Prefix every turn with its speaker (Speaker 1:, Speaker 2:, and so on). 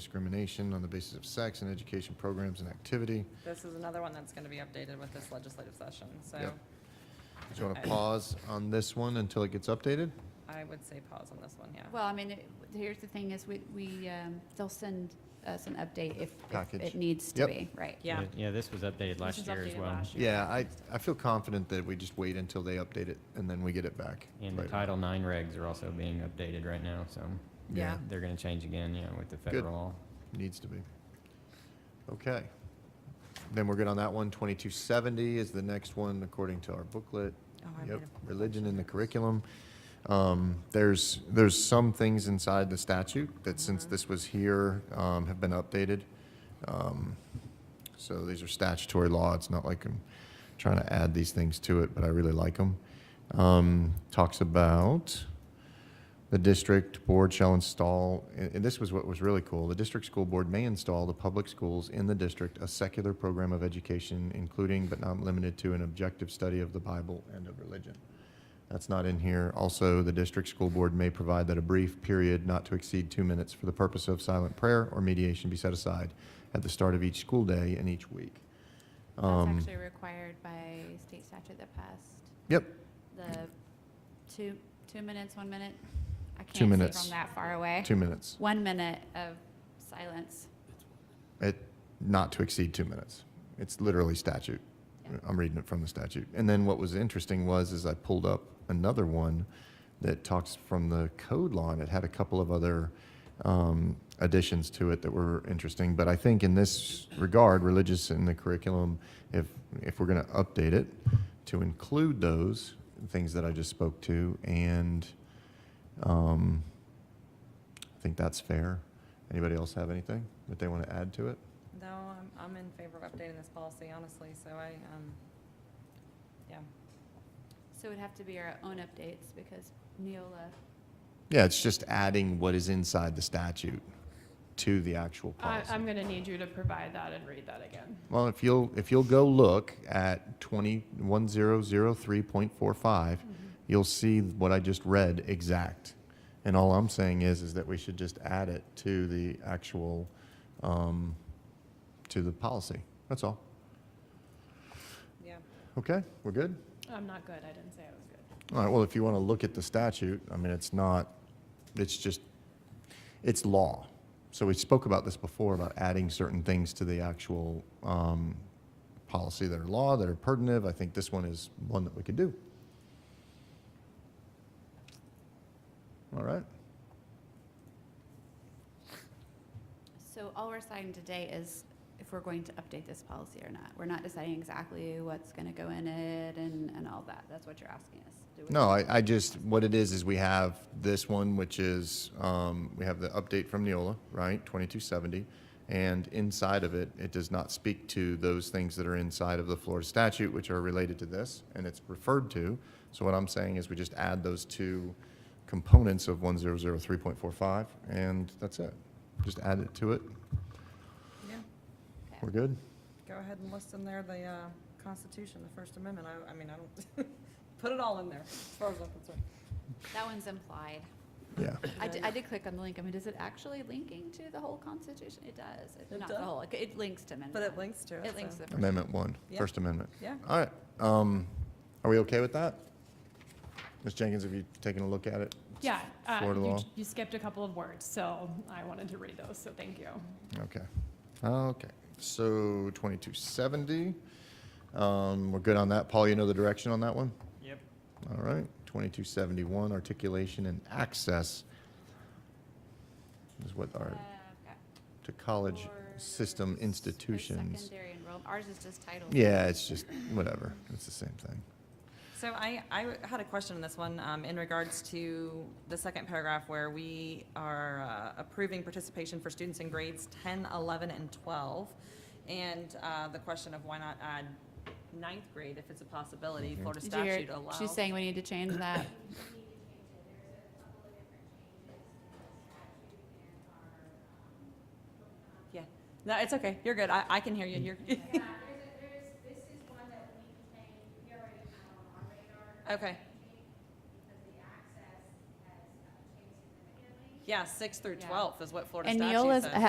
Speaker 1: non-discrimination on the basis of sex and education programs and activity.
Speaker 2: This is another one that's gonna be updated with this legislative session, so
Speaker 1: Yep. Do you want to pause on this one until it gets updated?
Speaker 2: I would say pause on this one, yeah.
Speaker 3: Well, I mean, it- here's the thing is we, we, um, they'll send us an update if- if
Speaker 1: Package.
Speaker 3: it needs to
Speaker 1: Yep.
Speaker 3: be, right?
Speaker 2: Yeah.
Speaker 4: Yeah, this was updated last
Speaker 2: was
Speaker 4: year as
Speaker 2: updated
Speaker 4: well.
Speaker 2: last year.
Speaker 1: Yeah, I, I feel confident that we just wait until they update it and then we get it back.
Speaker 4: And the
Speaker 1: Right.
Speaker 4: Title IX regs are also being updated right now, so
Speaker 1: Yeah.
Speaker 4: they're gonna change again, you know, with the federal law.
Speaker 1: Needs to be. Okay. Then we're good on that one. 2270 is the next one, according to our booklet.
Speaker 2: Oh, I
Speaker 1: Yep,
Speaker 2: made a-
Speaker 1: religion in the curriculum. Um, There's, there's some things inside the statute that since
Speaker 2: Mm-hmm.
Speaker 1: this was here, um, have been updated. Um, So these are statutory law. It's not like I'm trying to add these things to it, but I really like them. Talks about, the district board shall install, and and this was what was really cool, the district school board may install the public schools in the district a secular program of education, including but not limited to an objective study of the Bible and of religion. That's not in here. Also, the district school board may provide that a brief period not to exceed two minutes for the purpose of silent prayer or mediation be set aside at the start of each school day and each week.
Speaker 5: That's
Speaker 1: Um,
Speaker 5: actually required by state statute that passed
Speaker 1: Yep,
Speaker 5: the two, two minutes, one minute. I
Speaker 1: Two
Speaker 5: can't see
Speaker 1: minutes.
Speaker 5: from that far away.
Speaker 1: two minutes.
Speaker 5: One minute of silence.
Speaker 1: It, not to exceed two minutes. It's literally statute.
Speaker 5: Yeah.
Speaker 1: I'm reading it from the statute. And then what was interesting was, is I pulled up another one that talks from the code law, and it had a couple of other um, additions to it that were interesting. But I think in this regard, religious in the curriculum, if, if we're going to update it to include those things that I just spoke to, and um, I think that's fair. Anybody else have anything that they want to add to it?
Speaker 2: No, I'm, I'm in favor of updating this policy, honestly, so I, um, yeah.
Speaker 5: So it would have to be our own updates because Neola.
Speaker 1: Yeah, it's just adding what is inside the statute to the actual
Speaker 6: I,
Speaker 1: policy.
Speaker 6: I'm gonna need you to provide that and read that again.
Speaker 1: Well, if you'll, if you'll go look at 21003.45,
Speaker 5: Mm-hmm.
Speaker 1: you'll see what I just read exact. And all I'm saying is, is that we should just add it to the actual, um, to the policy. That's all.
Speaker 2: Yeah.
Speaker 1: Okay, we're good?
Speaker 6: I'm not good, I didn't say I was good.
Speaker 1: All right, well, if you want to look at the statute, I mean, it's not, it's just, it's law. So we spoke about this before, about adding certain things to the actual um, policy that are law, that are pertinent. I think this one is one that we could do. All right,
Speaker 5: So all we're deciding today is if we're going to update this policy or not. We're not deciding exactly what's gonna go in it and, and all that. That's what you're asking us. Do we-
Speaker 1: no, I, I just, what it is, is we have this one, which is, um, we have the update from Neola, right, 2270. And inside of it, it does not speak to those things that are inside of the Florida statute, which are related to this, and it's referred to. So what I'm saying is we just add those two components of 1003.45, and that's it. Just add it to it.
Speaker 2: Yeah.
Speaker 1: We're good?
Speaker 2: Go ahead and list in there the, uh, Constitution, the First Amendment, I, I mean, I don't, put it all in there, as far as I'm concerned.
Speaker 5: That one's implied.
Speaker 1: Yeah.
Speaker 5: I did, I did click on the link. I mean, is it actually linking to the whole Constitution? It does. It-
Speaker 2: It
Speaker 5: Not the
Speaker 2: does.
Speaker 5: whole, it- it links to amendment.
Speaker 2: But it
Speaker 5: one.
Speaker 2: links to it,
Speaker 5: It links
Speaker 2: so-
Speaker 5: to the. first
Speaker 1: Amendment one,
Speaker 2: Yeah.
Speaker 1: First Amendment.
Speaker 2: Yeah.
Speaker 1: All right, um, are we okay with that? Ms. Jenkins, have you taken a look at it?
Speaker 6: Yeah, uh,
Speaker 1: Florida
Speaker 6: you,
Speaker 1: law.
Speaker 6: you skipped a couple of words, so I wanted to read those, so thank you.
Speaker 1: Okay, okay, so twenty-two seventy, um, we're good on that. Paul, you know the direction on that one?
Speaker 4: Yep.
Speaker 1: All right, twenty-two seventy-one, articulation and access is what our,
Speaker 5: Uh, okay.
Speaker 1: to college
Speaker 5: For
Speaker 1: system
Speaker 5: s- for
Speaker 1: institutions.
Speaker 5: Secondary enrollment, ours is just titled.
Speaker 1: Yeah, it's just, whatever, it's the same thing.
Speaker 2: So I, I had a question on this one, um, in regards to the second paragraph where we are uh, approving participation for students in grades 10, 11, and 12. And, uh, the question of why not add ninth grade if it's a possibility, Florida
Speaker 5: Did you hear-
Speaker 2: statute allows.
Speaker 5: She's saying we need to change that.
Speaker 2: Yeah, no, it's okay, you're good, I, I can hear you, you're,
Speaker 7: Yeah, there's, a- there's, this is one that we contain, we already have on our radar.
Speaker 2: Okay.
Speaker 7: Because the access has uh, changed significantly.
Speaker 2: yeah, six through
Speaker 5: Yeah.
Speaker 2: 12 is what Florida
Speaker 5: And
Speaker 2: statute says.
Speaker 5: Neola's